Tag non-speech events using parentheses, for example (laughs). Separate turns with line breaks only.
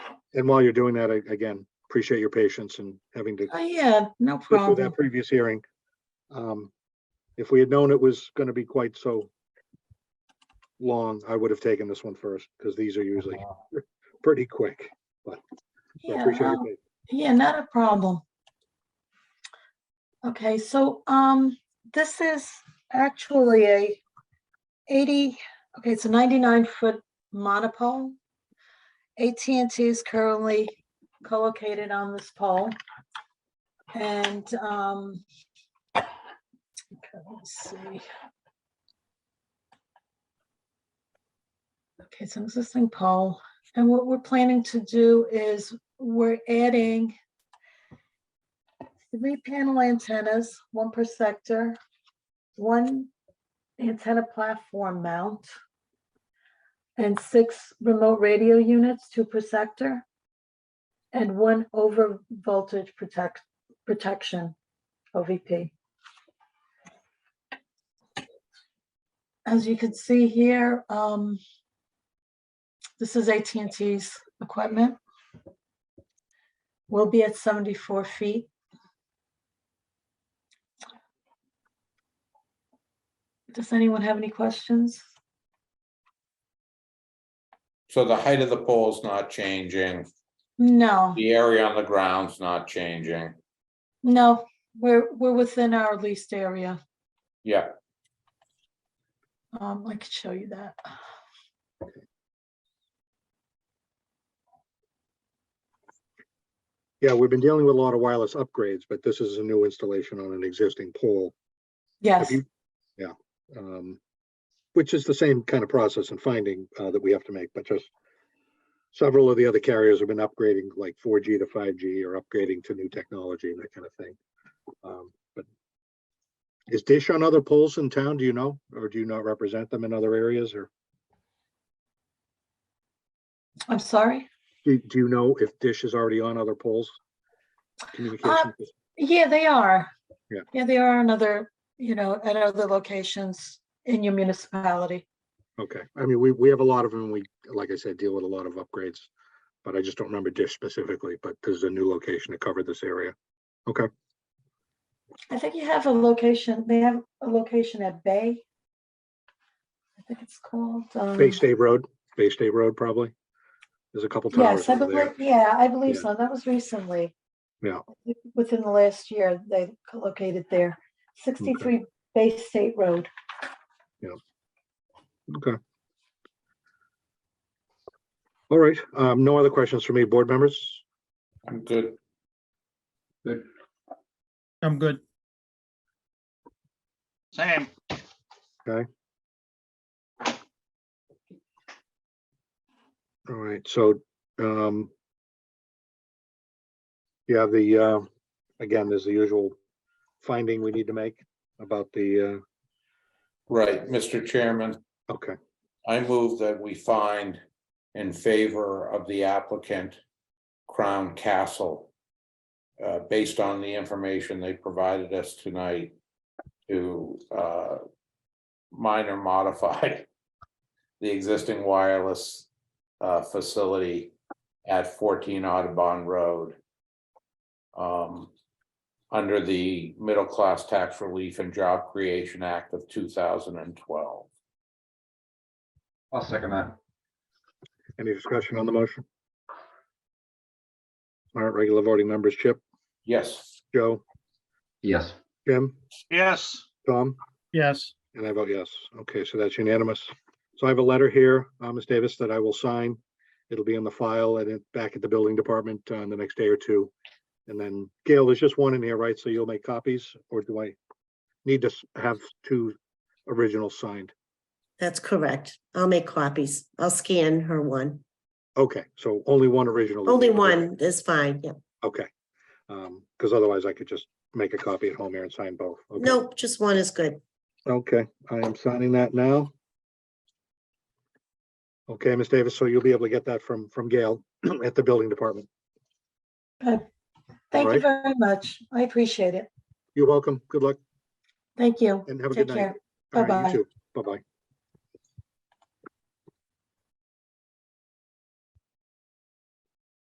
and while you're doing that, I- again, appreciate your patience and having to
Oh, yeah, no
go through
problem.
that previous hearing. Um, If we had known it was going to be quite so long, I would have taken this one first because these are usually (laughs) pretty quick. So
Yeah,
appreciate your
um,
patience.
yeah, not a problem. Okay, so, um, this is actually a eighty, okay, it's a ninety-nine foot monopole. AT&T is currently co-located on this pole. And, um, okay, let's see. Okay, it's an existing pole. And what we're planning to do is we're adding three panel antennas, one per sector, one antenna platform mount, and six remote radio units, two per sector, and one over voltage protect, protection, OVP. As you can see here, um, this is AT&T's equipment. We'll be at 74 feet. Does anyone have any questions?
So the height of the pole is not changing,
No,
the area on the ground's not changing.
no, we're, we're within our leased area.
Yeah,
Um, I could show you that.
Yeah, we've been dealing with a lot of wireless upgrades, but this is a new installation on an existing pole. Have
Yes,
you- Yeah. um, Which is the same kind of process and finding uh, that we have to make, but just several of the other carriers have been upgrading like 4G to 5G or upgrading to new technology and that kind of thing. Um, But is Dish on other poles in town? Do you know? Or do you not represent them in other areas? Or
I'm sorry.
do do you know if Dish is already on other poles? Communication,
Yeah, they are.
Yeah.
Yeah, they are another, you know, at other locations in your municipality.
okay. I mean, we, we have a lot of them. We, like I said, deal with a lot of upgrades. But I just don't remember Dish specifically, but this is a new location to cover this area.
I think you have a location, they have a location at Bay. I think it's called. um,
Bay State Road, Bay State Road probably. There's a couple towers
Yes, I
over
believe,
there.
yeah, I believe
Yeah.
so. That was recently.
Yeah.
Within the last year, they located there, sixty-three Bay State Road.
Okay. All right, um, no other questions for me, board members?
I'm good.
I'm good.
Same.
All right, so, um, yeah, the, uh, again, there's the usual finding we need to make about the,
Right, Mr. Chairman,
uh, okay,
I move that we find in favor of the applicant Crown Castle uh, based on the information they provided us tonight to uh, minor modify (laughs) the existing wireless uh, facility at 14 Audubon Road um, under the Middle Class Tax Relief and Job Creation Act of 2012.
I'll second that.
any discussion on the motion? All right, regular voting members, Chip,
Yes.
Joe,
Yes.
Jim,
Yes.
Tom?
Yes,
And I vote yes. Okay, so that's unanimous. So I have a letter here, uh, Ms. Davis, that I will sign. It'll be in the file and it back at the building department uh, in the next day or two. And then Gail, there's just one in here, right? So you'll make copies or do I need to s- have two originals signed?
That's correct. I'll make copies. I'll scan her one.
Okay, so only one original. is
Only
needed.
one is fine. Yep.
Okay. Um, because otherwise I could just make a copy at home here and sign both. Okay.
Nope, just one is good.
Okay, I am signing that now. Okay, Ms. Davis, so you'll be able to get that from, from Gail (clears throat) at the building department.
Thank you
right.
very much. I appreciate it.
You're welcome. Good luck
Thank you.
and have a good
Take
night.
care.
All right, you
Bye-bye.
too. Bye-bye.